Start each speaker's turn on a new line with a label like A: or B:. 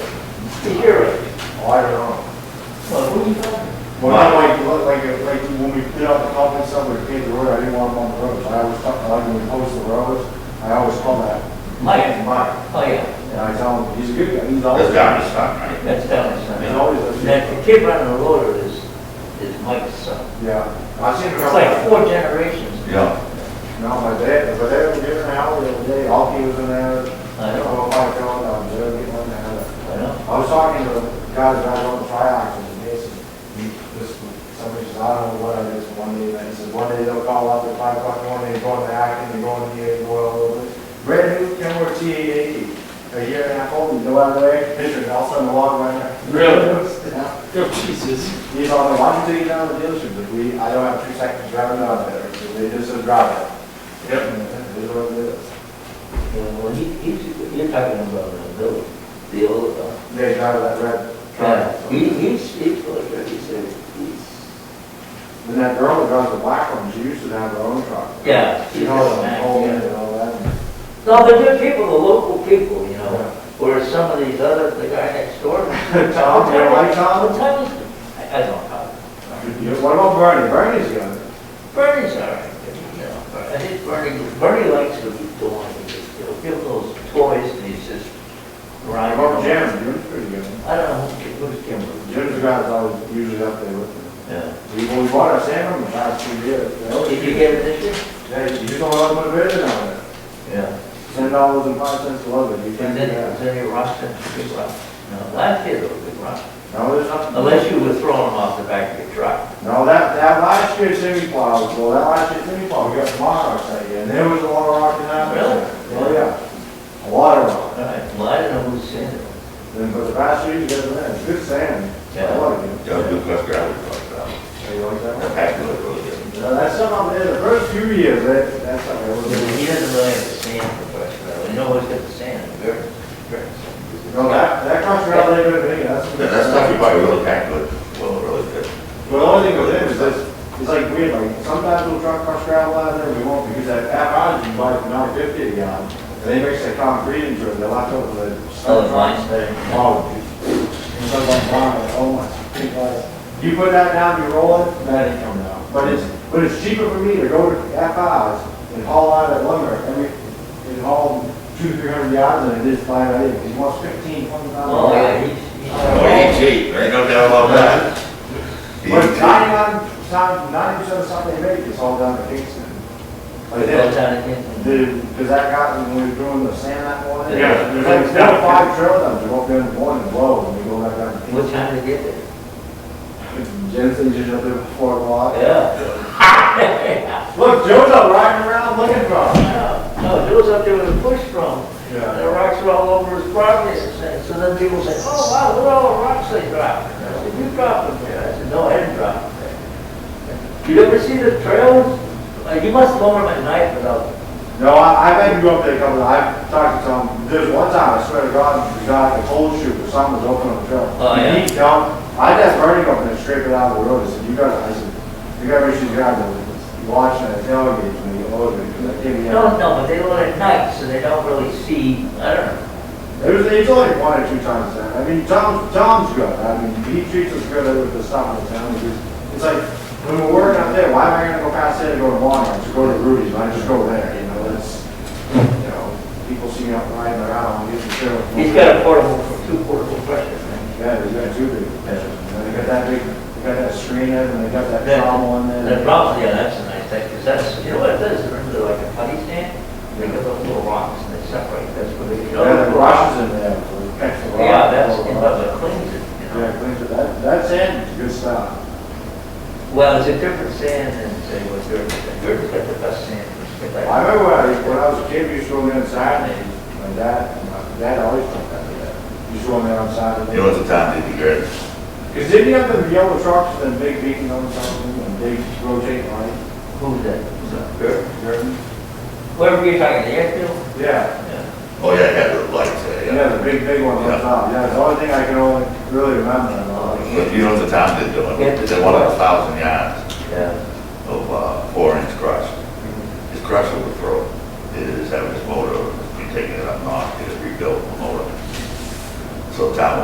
A: to hear it.
B: Oh, I don't know.
A: Well, who are you talking?
B: Well, not like, like, like when we did up the company somewhere, we paved the road, I didn't want them on the roads. I always thought, like when we post the roads, I always call that
A: Mike?
B: Mike.
A: Oh, yeah,
B: And I tell him, he's a good guy, he's always.
C: That's down this time, right?
A: that's Dallas.
B: He's always a good
A: That the kid running the loader is, is Mike's son.
B: Yeah. I seen
A: It's like four generations.
C: Yeah.
B: No, my dad, my dad was giving an hour the other day, all he was in there. Oh, I don't know if I told him, I was there getting one
A: I
B: there.
A: know.
B: I was talking to the guy that I on the trioxin, and they said, "You- this, somebody says, I don't know what it is, one day, and he says, one day they'll call up at five o'clock in the morning, they're going to Acton, they're going to the oil, a little bit. Brand new Kenworth T eighty, a year and a half old, you know, out of the way, picture, and all of a sudden, the log right there.
D: Really?
B: Yeah.
D: Oh, Jesus.
B: He's on the, why did you take it down to the dealership? But we, I don't have two seconds driving down there, so they just said drive it. Yep. It is what it is.
A: Yeah, well, he, he's, you're talking about the village, the old, uh,
B: They drive that red truck.
A: yeah. He,
B: And
A: he's, he's, really good. he's, a- he's,
B: that girl that drives the black one, she used to have her own truck.
A: yeah.
B: She called them, home
A: Yeah.
B: and all that.
A: No, they're good people, the local people, you
B: Yeah.
A: know, whereas some of these other, the guy next door.
B: Tom, you don't like
A: What
B: Tom?
A: time is it? I I don't know.
B: Yeah, What about Bernie? Bernie's young.
A: Bernie's all right, you know, I think Bernie, Bernie likes to be doing, he'll give those toys and he's just
B: What
A: grinding. them.
B: about Jim? Jim's pretty young.
A: I don't know, who- who's Kimberly?
B: Jim's the guy that's always usually up there with me.
A: Yeah.
B: We, we bought our Sandrum the last two years.
A: Oh, Did you get it this year?
B: Yeah, you just don't want to put a bid in on it.
A: Yeah.
B: Ten dollars and five cents a load, you
A: And
B: can't
A: then,
B: do that.
A: is there any rust in the big rock? No, last year there was a big rock,
B: No, there's nothing.
A: unless you were throwing them off the back of your truck.
B: No, that, that last year's semi plow, well, that last year's semi plow, we got tomorrow, I say, and there was a lot of rock in that.
A: Really?
B: Oh, yeah, a lot of rock.
A: All right, well, I don't know who's in it.
B: Then, but the past year, you guys, man, it's good sand. I
A: Yeah.
B: like it.
C: Down to West Gravel Park, down.
B: Hey, you like that one?
C: That's actually really good.
B: No, that's something, in the first few years, that, that's something.
A: Yeah,
B: that
A: but
B: was-
A: He doesn't really have the sand profession, though. You know what's got the sand, the dirt, dirt.
B: No, that, that comes around later than me, that's.
C: Yeah, That stuff you buy really actually, well, really good.
B: But the only thing with it is this, it's like weird, like sometimes we'll truck crush gravel out of there, we won't, because that half hour you buy for nine fifty a gallon. And they mix the concrete into it, they lock over the.
A: Oh, the lines there.
B: Oh. And so like, wow, oh my, because you put that down, you roll it, that ain't coming out. But it's, but it's cheaper for me to go to half hours and haul out that lumber every, and haul two, three hundred yards than it is flying out in. It wants fifteen, twenty thousand.
A: Oh, yeah, he's, he's,
C: Oh, he ain't cheap, there ain't no doubt about that. He ain't
B: But
C: cheap.
B: ninety-nine, time, ninety percent of something they make is all down to Kingston. Like
A: goes
B: that,
A: down again.
B: dude, cause that guy, when we were doing the sand that morning.
A: Yeah,
B: There's
A: there's-
B: like four, or five trail dumps, you go up there in the morning, and blow, and you go back down to
A: What time did he get there?
B: Kingston. Jensen's usually up there before o'clock.
A: Yeah.
B: Look, Joe's up riding around looking for him.
A: Yeah. No, Joe's up there with a push drum, and the rocks are all over his property, and so- so then people say, oh, wow, what all the rocks they dropped? And I said, you dropped them there, I said, no, I didn't drop them there. You ever see the trails? Uh, You must go over them at night without
B: No, I, I've had to go up there a couple, I've talked to some, there's one time, I swear to God, the guy, the cold chute, or something was open on the trail.
A: Oh, yeah.
B: He dumped, I just burned him up and scraped it out of the road, I said, you gotta, I said, you gotta make sure you grab it, It's watching that tailgate when you load it, because I can't be
A: No,
B: out.
A: no, but they do it at night, so they don't really see, I don't know.
B: It was, it's only one or two times that, I mean, Tom, Tom's good, I mean, he treats us good with the stuff in the town, because it's like, when we're working up there, why am I gonna go past there to go to Long, I just go to Rudy's, I just go there, you know, it's, you know, people see me out riding around, I'm using the trail.
A: He's got a portable, two portable pressure things.
B: Yeah, they got two big pictures. And they got that big, they got that screen in, and they got that
A: Yeah.
B: trommel in
A: And
B: there.
A: the problem, yeah, that's a nice thing, because that's, you know what it is, remember they're like a putty stand? They got those little rocks and they separate, that's what they, you know.
B: Yeah, the
A: the rocks-
B: brushes in there. for the catch the rock.
A: Yeah, that's, you know, that cleans it, you know.
B: Yeah, cleans it. That, that sand is good stuff.
A: Well, it's a different sand than, say, what dirt, is. dirt is like the best sand. it's like-
B: I remember when I, when I was a kid, we used to go in there on Saturdays, my dad, my dad always took that to that. We used to go in there on
C: You know,
B: Saturdays.
C: it's a time to be great.
B: Cause didn't you have the yellow trucks, and big beating on something, and big rotating lights?
A: Who's that? Who's that? Dirt?
B: Curtain?
A: Whatever you're talking, the airfield?
B: Yeah.
A: Yeah.
C: Oh, yeah, yeah, the lights, yeah, yeah.
B: Yeah, the big, big one on
C: Yeah.
B: top. Yeah, it's the only thing I can only really remember. uh,
C: But you know, the time they're doing,
A: Yeah.
C: they want a thousand yards
A: Yeah.
C: of, uh, four inch crush. His crush overthrow is having his motor, be taking it up north, get it rebuilt, the motor. So town